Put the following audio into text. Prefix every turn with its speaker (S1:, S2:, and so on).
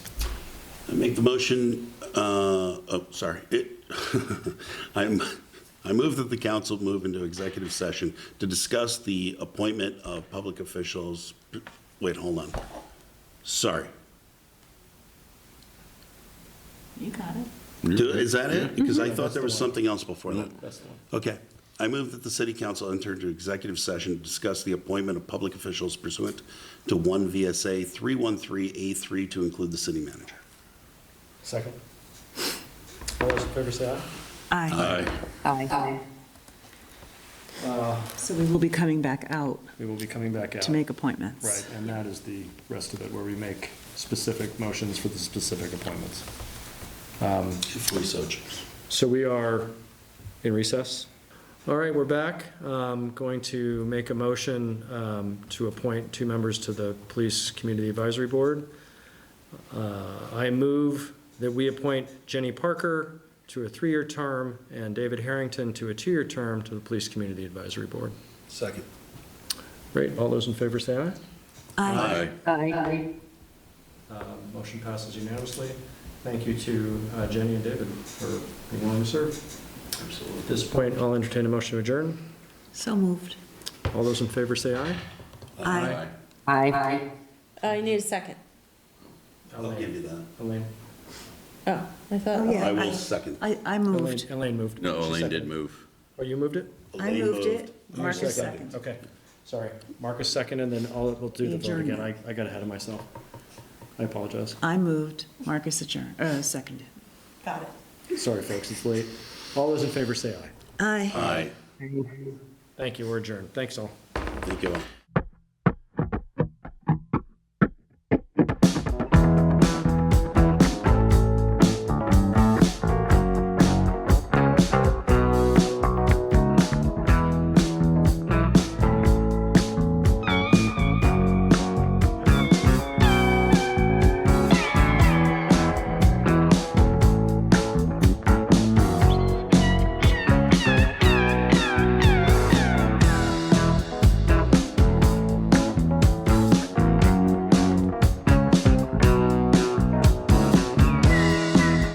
S1: I make the motion, uh, oh, sorry. It- I'm, I move that the council move into executive session to discuss the appointment of public officials. Wait, hold on. Sorry.
S2: You got it.
S1: Do- Is that it? Because I thought there was something else before that.
S3: That's the one.
S1: Okay. I move that the city council enter into executive session to discuss the appointment of public officials pursuant to 1 VSA 313A3 to include the city manager.
S3: Second. All those in favor say aye.
S2: Aye.
S4: Aye.
S2: So we will be coming back out
S3: We will be coming back out.
S2: to make appointments.
S3: Right, and that is the rest of it, where we make specific motions for the specific appointments. Um,
S1: If we so choose.
S3: So we are in recess. All right, we're back. Um, Going to make a motion um, to appoint two members to the Police Community Advisory Board. Uh, I move that we appoint Jenny Parker to a three-year term and David Harrington to a two-year term to the Police Community Advisory Board.
S1: Second.
S3: Great, all those in favor say aye.
S1: Aye.
S4: Aye.
S3: Um, Motion passes unanimously. Thank you to uh, Jenny and David for being willing to serve. At this point, I'll entertain a motion to adjourn.
S2: So moved.
S3: All those in favor say aye.
S2: Aye.
S4: Aye.
S5: Oh, you need a second.
S1: I'll give you that.
S3: Elaine.
S5: Oh, I
S2: Oh,
S5: thought,
S2: yeah.
S1: I will second.
S2: I, I
S3: Elaine,
S2: moved.
S3: Elaine moved.
S6: No,
S3: She
S6: Elaine did
S3: seconded.
S6: move.
S3: Oh, you moved it?
S2: I
S1: Elaine
S2: moved it. Marcus seconded.
S3: Okay, sorry. Marcus second, and then all, we'll do the vote again. I, I got ahead of myself. I apologize.
S2: I moved, Marcus adjourned, uh, seconded. Got it.
S3: Sorry, folks, it's late. All those in favor say aye.
S2: Aye.
S1: Aye.
S3: Thank you, we're adjourned. Thanks all.
S1: Thank you all.